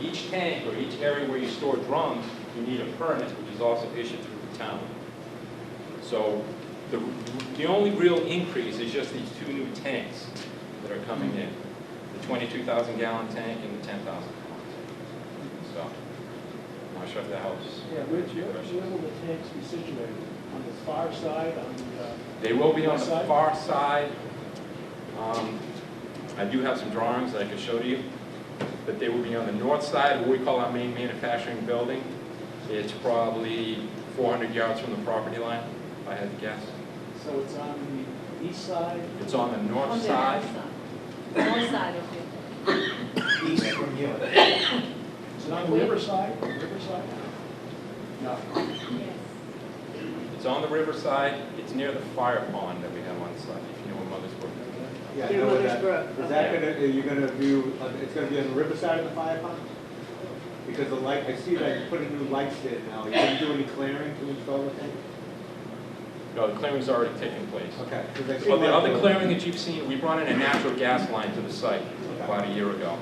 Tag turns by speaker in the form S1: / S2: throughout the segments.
S1: each tank or each area where you store drums, you need a permit, which is also issued through the town. So the, the only real increase is just these two new tanks that are coming in, the twenty-two thousand gallon tank and the ten thousand gallon tank. So, I'm not sure if that helps.
S2: Yeah, Rich, where where will the tanks be situated? On the far side, on the, uh,
S1: They will be on the
S2: Side?
S1: far side. Um, I do have some drawings that I could show to you, but they will be on the north side, what we call our main manufacturing building. It's probably 400 yards from the property line, if I had to guess.
S2: so it's on the east side,
S1: It's on the
S3: On
S1: north
S3: the
S1: side.
S3: North side, okay.
S4: east from you.
S2: is it on the
S3: Wait.
S2: riverside, riverside? No.
S3: Yes.
S1: It's on the riverside, it's near the fire pond that we have on site, if you know where Mother's Brook is.
S4: Yeah, I know where that- Is that gonna, are you gonna do, uh, it's gonna be on the riverside of the fire pond? Because the light, I see that you put a new lights there now, you didn't do any clearing to install the thing?
S1: No, the clearing's already taken place.
S4: Okay. 'cause I see
S1: Well, the
S4: like
S1: other clearing that you've seen, we brought in a natural gas line to the site about a year ago.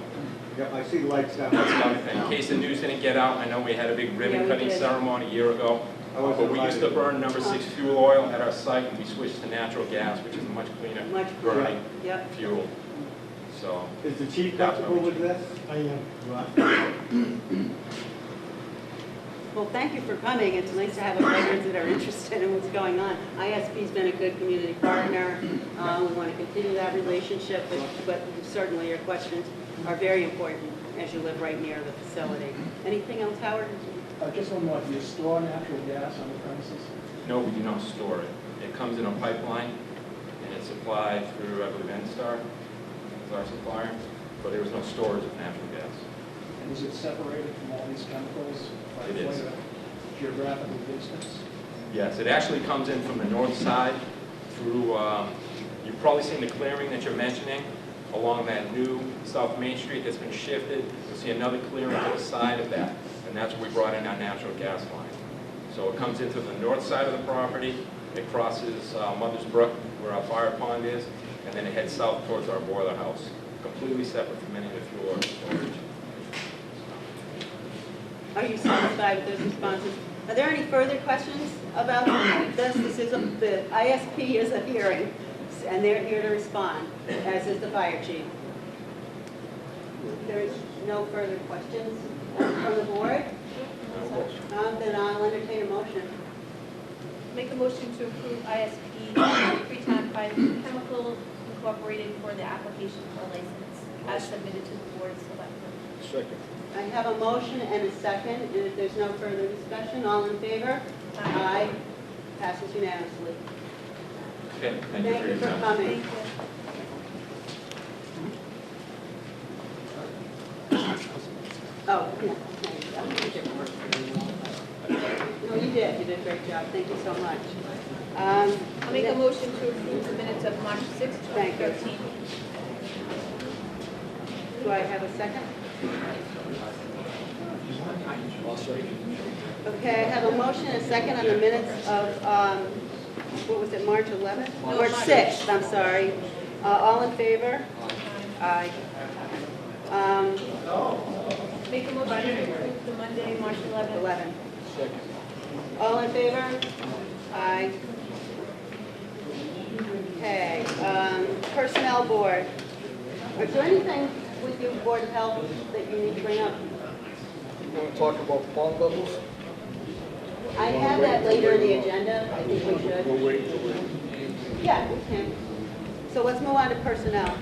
S4: Yep, I see lights down.
S1: That's another thing, in case the news didn't get out, I know we had a big ribbon
S3: we
S1: cutting
S3: did.
S1: ceremony a year ago.
S4: I wasn't
S1: But we used to
S4: invited.
S1: burn number six fuel oil at our site, and we switched to natural gas, which is a much cleaner
S5: Much,
S1: burning
S5: yep.
S1: fuel. So,
S4: Is the chief comfortable with this?
S2: I am.
S4: You are?
S5: Well, thank you for coming. It's nice to have veterans that are interested in what's going on. ISB's been a good community partner. Uh, We want to continue that relationship, but but certainly your questions are very important as you live right near the facility. Anything else, Howard?
S2: Uh, Just one more, do you store natural gas on the premises?
S1: no, we do not store it. It comes in a pipeline, and it's supplied through, I believe, Enstar is our supplier, but there is no storage of natural gas.
S2: And is it separated from all these chemicals? by
S1: It is.
S2: quite a Geographical distance?
S1: Yes, it actually comes in from the north side through, um, you've probably seen the clearing that you're mentioning along that new South Main Street that's been shifted. You'll see another clearing to the side of that, and that's where we brought in our natural gas line. So it comes into the north side of the property, it crosses uh, Mother's Brook, where our fire pond is, and then it heads south towards our boiler house, completely separate from any of the fuel or storage.
S5: Are you satisfied with those responses? Are there any further questions about this? This is, a- the ISP is a hearing, and they're here to respond, as is the fire chief. There's no further questions from the board?
S1: No motion.
S5: Um, Then I'll entertain a motion.
S6: Make a motion to approve ISP Freetown Biochemical Incorporated for the application for a license as submitted to the board of selectmen.
S5: I have a motion and a second, and if there's no further discussion, all in favor? Aye. Passes unanimously.
S1: Okay, thank you for
S5: Thank you
S1: your
S5: for
S1: time.
S5: coming. Oh, yeah. No, you did, you did a great job, thank you so much. Um,
S6: I'll make a motion to approve the minutes of March sixth, twenty
S5: Thank you.
S6: thirteen.
S5: Do I have a second? Okay, I have a motion and a second on the minutes of, um, what was it, March 11th?
S6: No,
S5: March
S6: March.
S5: 6th, I'm sorry. Uh, All in favor? Aye. Um,
S6: Make a motion to approve the Monday, March eleventh.
S5: 11. All in favor? Aye. Okay, um, Personnel Board. Is there anything with your Board of Health that you need to bring up?
S7: You want to talk about pond levels?
S5: I have that later in the agenda, I think we should. We'll wait Yeah, we can. So let's move on to personnel.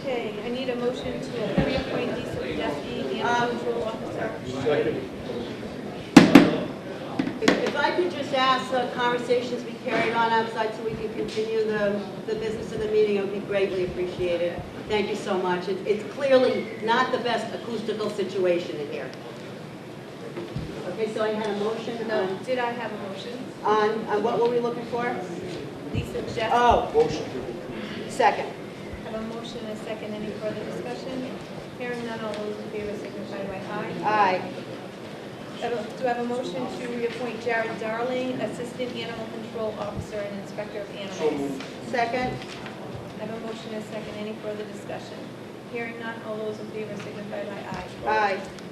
S6: Okay, I need a motion to reappoint Lisa Podesta, animal
S5: Um,
S6: control officer.
S5: If if I could just ask the conversations be carried on outside so we can continue the, the business of the meeting, it would be greatly appreciated. Thank you so much. It- It's clearly not the best acoustical situation in here. Okay, so I had a motion
S6: No,
S5: on,
S6: did I have a motion?
S5: on, on what were we looking for?
S6: Lisa Podesta.
S5: Oh,
S7: Motion to
S5: second.
S6: Have a motion and a second. Any further discussion? Hearing none, all those in favor signify by aye.
S5: Aye.
S6: I don't- Do I have a motion to reappoint Jared Darling, Assistant Animal Control Officer and Inspector of Animals?
S5: Second.
S6: I have a motion and a second. Any further discussion? Hearing none, all those in favor signify by aye.
S5: Aye.